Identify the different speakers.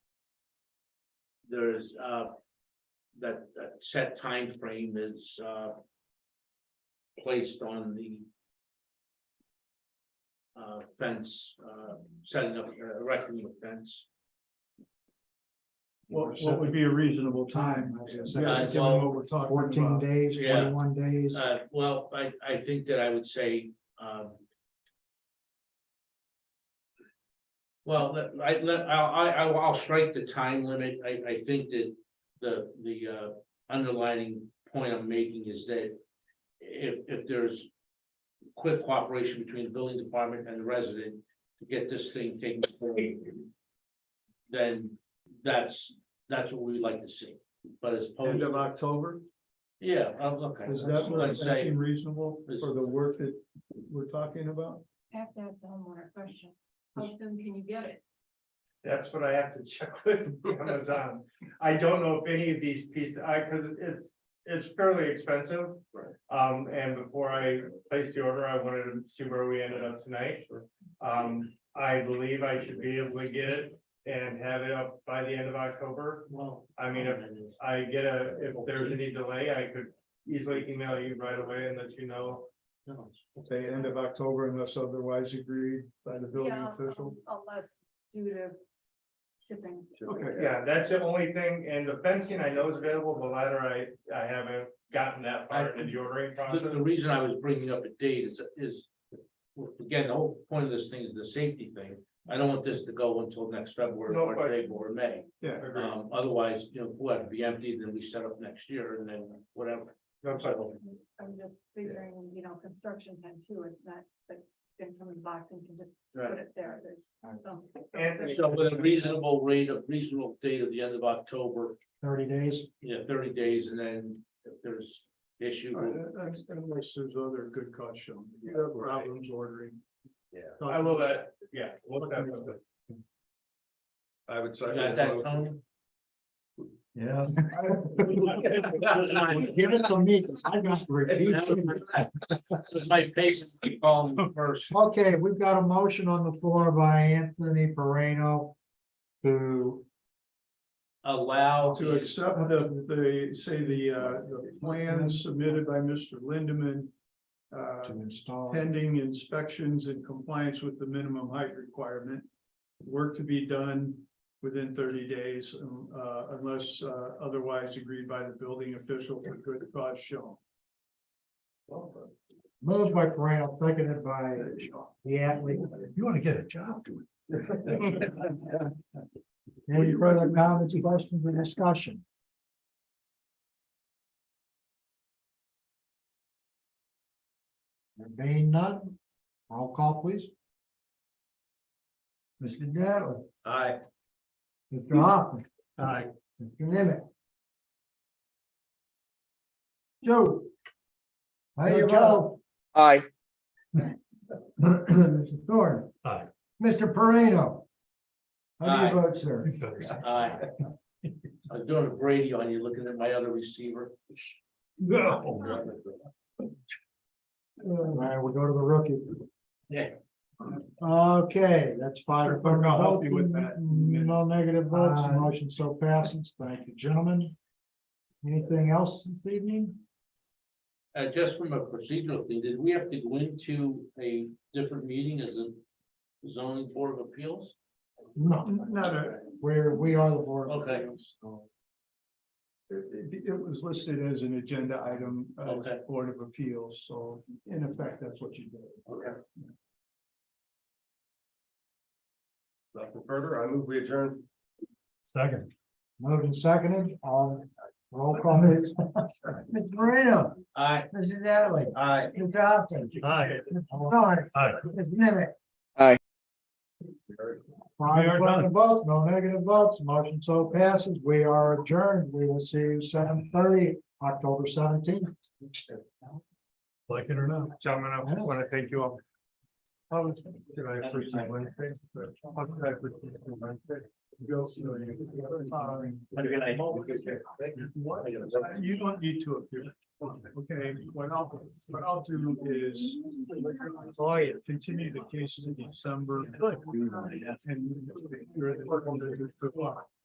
Speaker 1: there's, uh, that, that set frame is, uh, placed on the uh, fence, uh, setting up, uh, erecting the fence.
Speaker 2: What, what would be a reasonable time? I was gonna say,
Speaker 1: Yeah,
Speaker 2: Given
Speaker 1: well,
Speaker 2: what we're talking about.
Speaker 3: Fourteen days,
Speaker 1: Yeah.
Speaker 3: twenty-one days,
Speaker 1: Uh, well, I, I think that I would say, um. Well, let- I, let, I, I, I'll- I'll strike the time limit, I, I think that the, the, uh, underlining point I'm making is that. If, if there's quick cooperation between the building department and the resident to get this thing taken care of. Then that's, that's what we'd like to see, but as opposed,
Speaker 2: End of October,
Speaker 1: oh, yeah, oh, okay.
Speaker 2: is that what
Speaker 1: Let's say-
Speaker 2: seem reasonable
Speaker 1: is-
Speaker 2: for the work that we're talking about?
Speaker 4: I have to ask the homeowner a question. How soon can you get it?
Speaker 5: That's what I have to check with Amazon. I don't know if any of these pieces, I, cause it's, it's fairly expensive.
Speaker 1: Right.
Speaker 5: Um, and before I placed the order, I wanted to see where we ended up tonight. Um, I believe I should be able to get it and have it up by the end of October.
Speaker 1: Well.
Speaker 5: I mean, if I get a, if there's any delay, I could easily email you right away and let you know.
Speaker 2: Say end of October unless otherwise agreed by the building
Speaker 4: Yeah,
Speaker 2: official?
Speaker 4: um, Unless due to shipping.
Speaker 2: Okay,
Speaker 5: Yeah, that's the only thing, and the fencing I know is available, the ladder I, I haven't gotten that far into the ordering
Speaker 1: The,
Speaker 5: process.
Speaker 1: Uh, the reason I was bringing up a date is, is, again, the whole point of this thing is the safety thing. I don't want this to go until next February
Speaker 5: No
Speaker 1: or
Speaker 5: question.
Speaker 1: April or May.
Speaker 2: yeah.
Speaker 5: Agreed.
Speaker 1: Um, otherwise, you know, what, be empty, then we set up next year and then whatever.
Speaker 5: No question.
Speaker 1: So,
Speaker 4: I'm just figuring, you know, construction time too, it's not, like, then come and box and can just put it there, there's. some- some-
Speaker 5: And-
Speaker 1: So with a reasonable rate of reasonable date of the end of October,
Speaker 3: thirty days.
Speaker 1: you know, thirty days, and then if there's issue.
Speaker 2: All right,
Speaker 1: we'll-
Speaker 2: un- un- Unless there's other good cause shown, you have problems ordering.
Speaker 1: Yeah.
Speaker 5: I will let, yeah, we'll definitely.
Speaker 2: I would say.
Speaker 1: You got that, Tony?
Speaker 3: Yeah.
Speaker 1: Those are my-
Speaker 3: Give it to me, 'cause I got to repeat.
Speaker 1: those are My patient, I call them first.
Speaker 3: Okay, we've got a motion on the floor by Anthony Perino to,
Speaker 1: Allow.
Speaker 2: To accept the, the, say the, uh, the plan submitted by Mr. Lindeman. Uh,
Speaker 3: to install.
Speaker 2: pending inspections in compliance with the minimum height requirement. Work to be done within thirty days, um, uh, unless, uh, otherwise agreed by the building official for good cause shown.
Speaker 3: Moved by Perino, seconded by Yatley. You want to get a job doing. Any further comments, questions, or discussion? There being none, roll call please. Mr. Dattley,
Speaker 2: Aye.
Speaker 3: Mr. Hoffman,
Speaker 2: Aye.
Speaker 3: Mr. Nimitz. Joe. How do you vote?
Speaker 6: Aye.
Speaker 3: Mr. Thorne.
Speaker 6: Aye.
Speaker 3: Mr. Parado. How
Speaker 1: Aye.
Speaker 3: do you vote, sir?
Speaker 1: Aye. I was doing a Brady on you, looking at my other receiver. Uh,
Speaker 3: All right, we'll go to the rookie.
Speaker 1: Yeah.
Speaker 3: Okay, that's five.
Speaker 2: Clerk, I'll help you with that.
Speaker 3: No negative votes,
Speaker 2: Uh,
Speaker 3: the motion so passes. Thank you, gentlemen. Anything else this evening?
Speaker 1: Uh, just from a procedural thing, did we have to go into a different meeting as a zoning board of appeals?
Speaker 3: No,
Speaker 2: Not a,
Speaker 3: we're, we are the board. of
Speaker 1: Okay.
Speaker 3: Appeals, so
Speaker 2: it, it- it was listed as an agenda item, uh,
Speaker 1: Okay.
Speaker 2: Board of Appeals, so in effect, that's what you did.
Speaker 1: Okay.
Speaker 5: Nothing further, I move we adjourn.
Speaker 6: Second.
Speaker 3: Moved and seconded, all roll call. please. Mr. Parado,
Speaker 1: Aye.
Speaker 3: Mr. Dattley,
Speaker 1: Aye.
Speaker 3: Mr. Johnson.
Speaker 6: Aye.
Speaker 3: Mr. Thorne.
Speaker 6: Aye.
Speaker 3: Mr. Nimitz.
Speaker 6: Aye.
Speaker 3: Five
Speaker 6: We are
Speaker 3: affirmative votes, no negative votes, motion so passes, we are adjourned, we will see you seven thirty, October seventeenth.
Speaker 6: Like it or not.
Speaker 5: Gentlemen, I want to thank you all. How
Speaker 3: Oh,
Speaker 5: did I
Speaker 1: appreciate
Speaker 5: Wednesday? How did I appreciate Wednesday?
Speaker 2: You don't need to appear. Okay, what I'll, what I'll do is. Continue the case in December. And. you're the-